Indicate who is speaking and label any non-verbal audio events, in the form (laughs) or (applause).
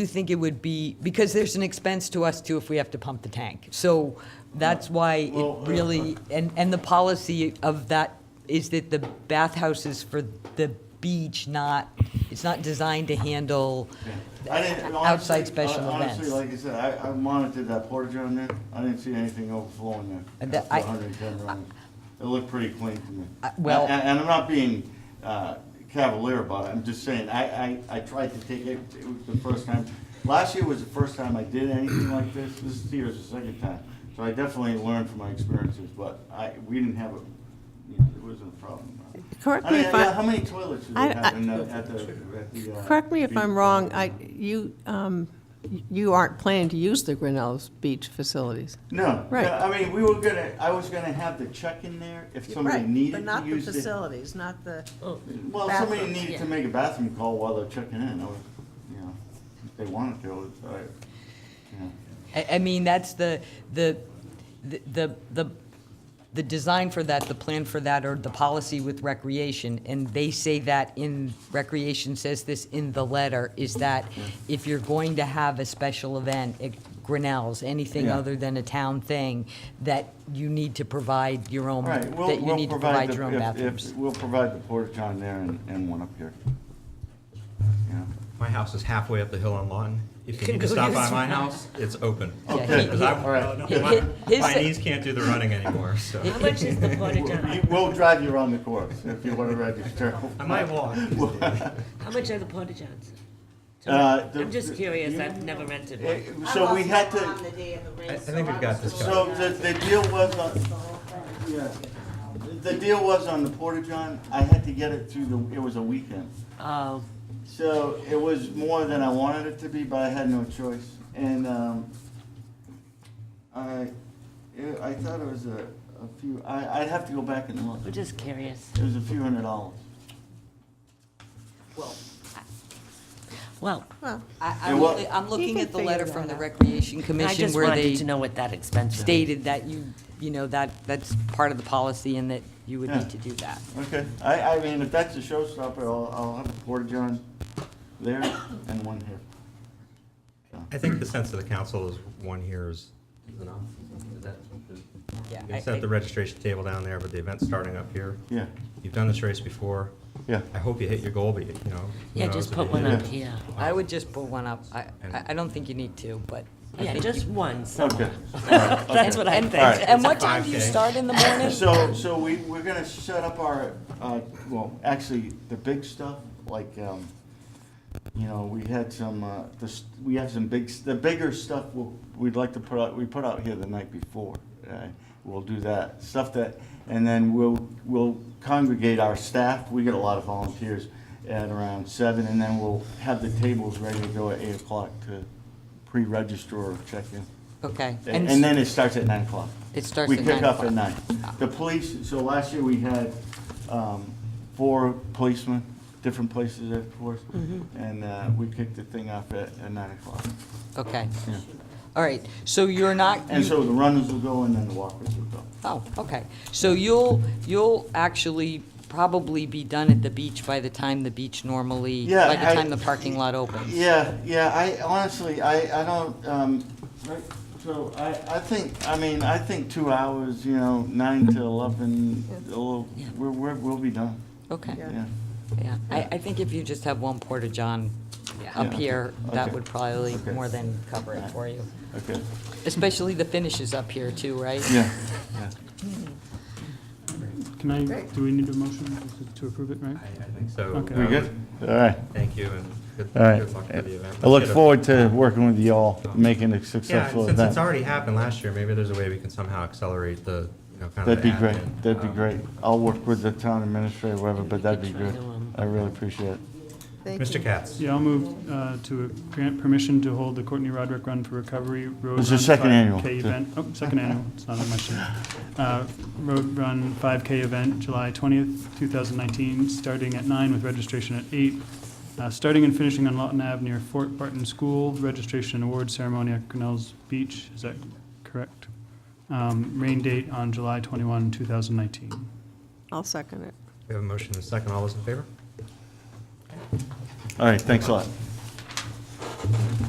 Speaker 1: do think it would be, because there's an expense to us too if we have to pump the tank. So that's why
Speaker 2: Well,
Speaker 1: it really, and, and the policy of that is that the bathhouse is for the beach, not, it's not designed to handle
Speaker 2: I didn't-
Speaker 1: outside
Speaker 2: honestly-
Speaker 1: special
Speaker 2: hon-
Speaker 1: events.
Speaker 2: Honestly, like I said, I, I monitored that portage on there, I didn't see anything overflowing
Speaker 1: And
Speaker 2: there.
Speaker 1: Uh, that- I-
Speaker 2: 110 gallons. It looked pretty clean to me.
Speaker 1: I- well-
Speaker 2: And, and I'm not being uh, cavalier about it, I'm just saying, I, I, I tried to take it, it was the first time. Last year was the first time I did anything like this, this year's the second time. So I definitely learned from my experiences, but I, we didn't have a, you know, it wasn't a problem.
Speaker 3: Correct
Speaker 2: I
Speaker 3: me
Speaker 2: mean,
Speaker 3: if
Speaker 2: yeah, how
Speaker 3: I,
Speaker 2: many toilets did
Speaker 3: I-
Speaker 2: they have
Speaker 3: I-
Speaker 2: in the, at the, at the? uh,
Speaker 3: correct me if I'm
Speaker 2: beach?
Speaker 3: wrong, I, you, um, you aren't planning to use the Grinnell's beach facilities.
Speaker 2: No, no,
Speaker 3: Right.
Speaker 2: I mean, we were gonna, I was gonna have the check in there if somebody needed to use it.
Speaker 3: facilities, not the.
Speaker 2: Well, if somebody
Speaker 3: bathrooms,
Speaker 2: needed to
Speaker 3: yeah.
Speaker 2: make a bathroom call while they're checking in, I would, you know, if they wanted to, it's, I, yeah.
Speaker 1: I, I mean, that's the, the, the- the, the, the design for that, the plan for that, or the policy with recreation, and they say that in, recreation says this in the letter, is that if you're going to have a special event at Grinnell's, anything
Speaker 2: Yeah.
Speaker 1: other than a town thing, that you need to provide your own,
Speaker 2: All right,
Speaker 1: that
Speaker 2: we'll,
Speaker 1: you
Speaker 2: we'll
Speaker 1: need to
Speaker 2: provide
Speaker 1: provide your
Speaker 2: the,
Speaker 1: own
Speaker 2: if-
Speaker 1: bathrooms.
Speaker 2: if, we'll provide the portage on there and, and one up here. Yeah.
Speaker 4: My house is halfway up the hill on Lawton. If you
Speaker 1: Can
Speaker 4: need to
Speaker 1: go
Speaker 4: stop
Speaker 1: use
Speaker 4: by
Speaker 1: it.
Speaker 4: my house, it's open.
Speaker 1: Okay.
Speaker 2: Okay,
Speaker 1: he-
Speaker 2: all right.
Speaker 1: he-
Speaker 4: My
Speaker 1: his-
Speaker 4: my knees can't do the running anymore, so.
Speaker 5: How much is the portage
Speaker 2: We'll-
Speaker 5: on,
Speaker 2: We'll drive you around the course if you wanna register.
Speaker 4: I
Speaker 2: (laughs)
Speaker 4: might walk.
Speaker 5: how much are the portage ons?
Speaker 2: Uh, the-
Speaker 5: I'm just curious,
Speaker 2: you-
Speaker 5: I've never rented
Speaker 2: Eh,
Speaker 5: one.
Speaker 2: So we had to.
Speaker 4: I- I think we've got this covered.
Speaker 2: So the, the deal was on, yeah, the deal was on the porta-john, I had to get it through the, it was a weekend.
Speaker 5: Oh,
Speaker 2: So it was more than I wanted it to be, but I had no choice. And, um, I, it- I thought it was a, a few, I, I'd have to go back and look.
Speaker 5: we're just curious.
Speaker 2: It was a few hundred dollars.
Speaker 5: Well,
Speaker 3: Well,
Speaker 1: I,
Speaker 2: Yeah,
Speaker 1: I'm,
Speaker 2: well-
Speaker 1: looking- I'm looking
Speaker 3: can
Speaker 1: at the
Speaker 3: figure
Speaker 1: letter
Speaker 3: that
Speaker 1: from the
Speaker 3: out.
Speaker 1: Recreation
Speaker 5: I
Speaker 1: Commission
Speaker 5: just
Speaker 1: where
Speaker 5: wanted to
Speaker 1: they
Speaker 5: know what that expense was.
Speaker 1: stated that you, you know, that, that's part of the policy and that you would
Speaker 2: Yeah.
Speaker 1: need to do that.
Speaker 2: Okay, I, I mean, if that's a showstopper, I'll, I'll have a porta-john there and one here.
Speaker 4: I think the sense of the council is one here is is enough. Is that- is-
Speaker 1: Yeah,
Speaker 4: You
Speaker 1: I-
Speaker 4: can set the
Speaker 1: I-
Speaker 4: registration table down there, but the event's starting up here.
Speaker 2: Yeah,
Speaker 4: You've done this race before.
Speaker 2: yeah.
Speaker 4: I hope you hit your goal, but you know. who
Speaker 5: Yeah,
Speaker 4: knows
Speaker 5: just
Speaker 4: if
Speaker 5: put
Speaker 4: you
Speaker 5: one
Speaker 4: do.
Speaker 5: up here.
Speaker 1: I would just put one up. I, I-
Speaker 4: And-
Speaker 1: I don't think you need to, but. I
Speaker 5: Yeah,
Speaker 1: think-
Speaker 5: just
Speaker 2: (laughs)
Speaker 5: one,
Speaker 2: Okay.
Speaker 5: somewhere.
Speaker 2: That's
Speaker 5: That's what I
Speaker 2: All right.
Speaker 5: think.
Speaker 1: And what time do you
Speaker 4: 5K.
Speaker 1: start in the morning?
Speaker 2: So, so we, we're gonna set up our, uh, well, actually, the big stuff, like, um, you know, we had some, uh, the, s- we have some big, s- the bigger stuff we'll, we'd like to put out, we put out here the night before. uh, We'll do that, stuff that, and then we'll, we'll congregate our staff, we get a lot of volunteers at around seven, and then we'll have the tables ready to go at eight o'clock to pre-register or check in.
Speaker 1: Okay.
Speaker 2: And and then it starts at nine o'clock.
Speaker 1: It starts at
Speaker 2: We
Speaker 1: 9
Speaker 2: pick up at
Speaker 1: o'clock.
Speaker 2: nine. The police, so last year we had um, four policemen, different places of course, and uh, we kicked the thing off at at nine o'clock.
Speaker 1: Okay. All right. So you're not.
Speaker 2: And
Speaker 1: you-
Speaker 2: so the runners will go and then the walkers will go.
Speaker 1: Oh, okay. So you'll, you'll actually probably be done at the beach by the time the beach normally,
Speaker 2: Yeah,
Speaker 1: by
Speaker 2: I-
Speaker 1: the time the parking lot opens.
Speaker 2: Yeah, yeah, I honestly, I, I don't, um, right, so I, I think, I mean, I think two hours, you know, nine to eleven, a little-
Speaker 5: Yeah.
Speaker 2: we're, we're, we'll be done,
Speaker 1: Okay.
Speaker 3: Yeah.
Speaker 2: yeah.
Speaker 1: Yeah. I, I think if you just have one porta-john up
Speaker 2: Yeah.
Speaker 1: here, that
Speaker 2: Okay.
Speaker 1: would probably
Speaker 2: Okay.
Speaker 1: more than cover it for you.
Speaker 2: Okay,
Speaker 1: Especially the finishes up here too, right?
Speaker 2: yeah, yeah.
Speaker 6: Can I,
Speaker 3: Great.
Speaker 6: do we need a motion to- to approve it, right?
Speaker 4: I I think so.
Speaker 6: Okay.
Speaker 2: We good? Um, All right.
Speaker 4: Thank you and good
Speaker 2: All right.
Speaker 4: good luck with the event.
Speaker 2: I look
Speaker 4: Let's get a-
Speaker 2: forward to working with you all, making it
Speaker 4: Yeah, and
Speaker 2: successful
Speaker 4: since it's
Speaker 2: event.
Speaker 4: already happened last year, maybe there's a way we can somehow accelerate the, you know, kind of.
Speaker 2: That'd be
Speaker 4: the
Speaker 2: great,
Speaker 4: admin.
Speaker 2: that'd be
Speaker 4: Um,
Speaker 2: great. I'll work with the town administrator, whatever, but that'd be
Speaker 5: Try
Speaker 2: great.
Speaker 5: to, um,
Speaker 2: I really appreciate it.
Speaker 3: thank
Speaker 4: Mr.
Speaker 3: you.
Speaker 4: Katz,
Speaker 6: Yeah, I'll move uh, to grant permission to hold the Courtney Roderick Run for Recovery Road.
Speaker 2: It's the
Speaker 6: Run
Speaker 2: second
Speaker 6: 5K
Speaker 2: annual, too.
Speaker 6: event. Oh,
Speaker 2: (laughs)
Speaker 6: second annual, it's not on my sheet. Uh, Road Run 5K event, July 20th, 2019, starting at nine with registration at eight. Uh, Starting and finishing on Lawton Ave near Fort Barton School, registration and award ceremony at Grinnell's Beach, is that correct? Um, Rain date on July 21, 2019.
Speaker 3: I'll second it.
Speaker 4: we have a motion and a second. All those in favor?
Speaker 2: All right, thanks a lot.